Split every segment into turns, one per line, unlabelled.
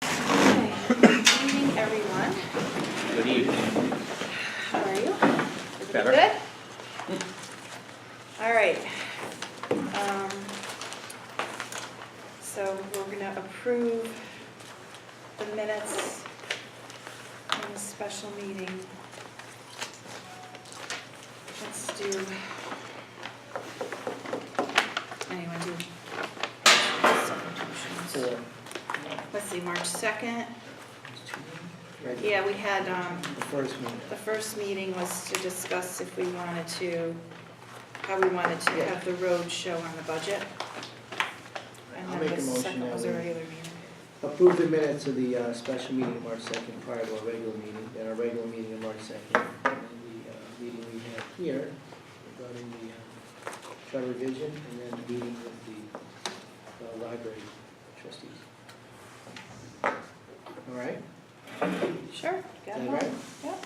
everyone.
Good evening.
How are you? Everything
Better.
Good? All right. Um, So we're gonna approve the minutes in the special meeting. Let's do. Anyone do?
So,
Let's see, March 2nd.
right,
Yeah, we had, um,
the first one,
The first meeting was to discuss if we wanted to, how we wanted to have the road show on the budget. And
I'll
then
make a
the
motion
second
that
was a
we-
regular meeting.
approve the minutes of the uh, special meeting of March 2nd prior to our regular meeting, then our regular meeting of March 2nd, and then the uh, meeting we had here regarding the uh, charter revision, and then the meeting with the uh, library trustees. All right?
Sure,
Is
got
that
it
right?
Yep.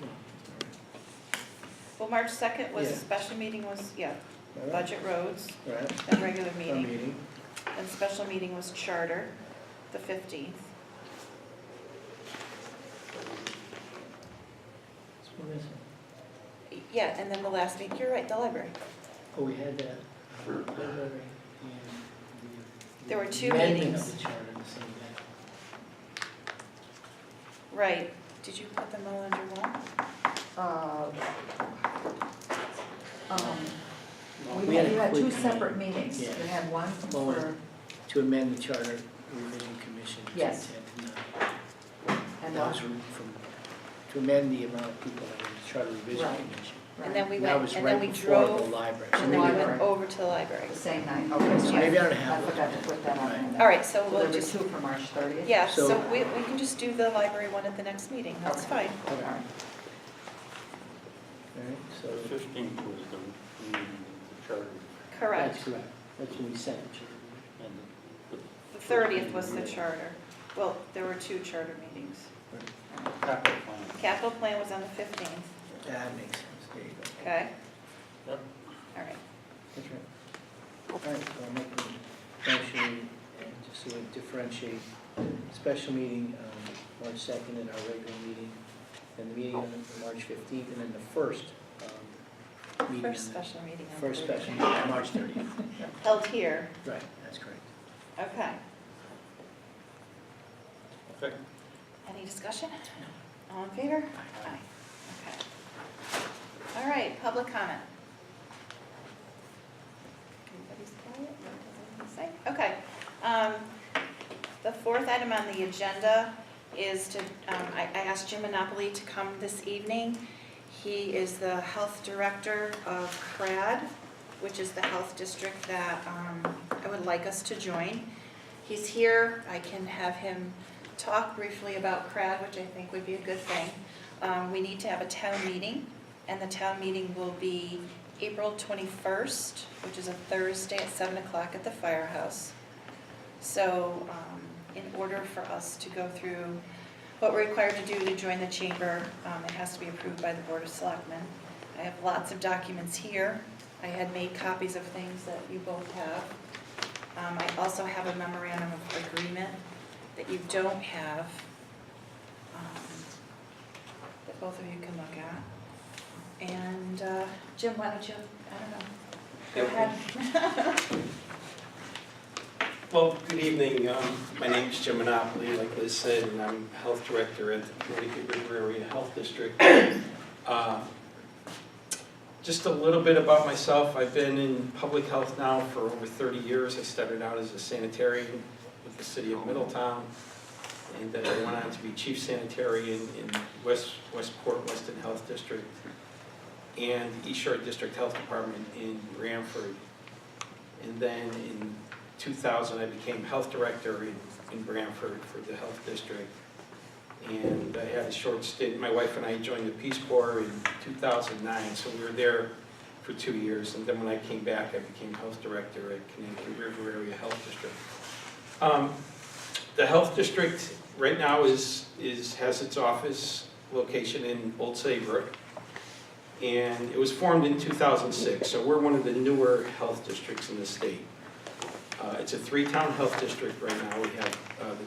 No,
Well, March second was,
Yeah.
special meeting was, yeah,
All right.
budget roads,
All right,
then regular
our
meeting,
meeting,
then special meeting was charter, the fifteenth.
What's one missing?
Yeah, and then the last week, you're right, the library.
Oh, we had that.
There were two
Amendment
meetings.
of the charter in the same day.
Right, did you put them all under one?
uh, um, We
We
had,
a
you had
quick
two
meeting
separate meetings. You
Yeah.
had one
Well,
for,
To amend the charter revision commission. to
Yes.
10 to 9.
and
That
one,
was from, from- to amend the amount of people that were in the charter revision
Right.
commission.
And then
right,
we
That
went,
was
and then
right
we
before the
drove,
library. So
and then
maybe
we
library.
went over to the library.
the same night, okay.
So
I-
maybe I don't have
I forgot to put that on
Right.
there.
All right, so
So there
we'll
were
just
two for March thirtieth?
Yeah,
So-
so we, we can just do the library one at the next meeting, that's fine.
All
Okay. All
right,
right,
so
The 15th was the meeting of the charter.
that's
Correct.
correct. That's when we sent it. to
and the-
The thirtieth was the charter. Well, there were two charter meetings.
Capital plan.
Capital plan was on the fifteenth,
the- That makes sense, there you go.
okay?
Yep.
All right.
That's right. All right, so I'll make a motion, and just so we differentiate, special meeting, um, March second, and our regular meeting, and the meeting on March fifteenth, and then the first, um, meeting. on
First
the-
special meeting. on
First
Thursday.
special, meeting on March thirtieth,
Held here,
right, that's correct.
okay.
Okay.
Any discussion? All in favor? Aye. Okay. All right, public comment. Anybody's quiet? No, doesn't say? Okay. Um, The fourth item on the agenda is to, um, I I asked Jim Monopoly to come this evening. He is the health director of CRAD, which is the health district that um, I would like us to join. He's here, I can have him talk briefly about CRAD, which I think would be a good thing. Um, We need to have a town meeting, and the town meeting will be April 21st, which is a Thursday at 7 o'clock at the firehouse. So um, in order for us to go through what we're required to do to join the chamber, um, it has to be approved by the Board of Selectmen. I have lots of documents here. I had made copies of things that you both have. Um, I also have a memorandum of agreement that you don't have, um, that both of you can look at. And uh, Jim, why don't you, I don't know, go ahead.
Well, good evening. Um, My name's Jim Monopoly, like Liz said, and I'm Health Director at the Connecticut River Area Health District. Uh, Just a little bit about myself. I've been in public health now for over 30 years. I started out as a sanitarian with the city of Middletown, and then I went on to be Chief Sanitarian in West Westport, Weston Health District, and East Shore District Health Department in Branford. And then in 2000, I became health director in in Branford for the health district. And I had a short stint, my wife and I joined the Peace Corps in 2009, so we were there for two years. And then when I came back, I became health director at Connecticut River Area Health District. Um, The health district right now is, is, has its office location in Old Saybrook. And it was formed in 2006, so we're one of the newer health districts in the state. Uh, It's a three-town health district right now. We have uh, the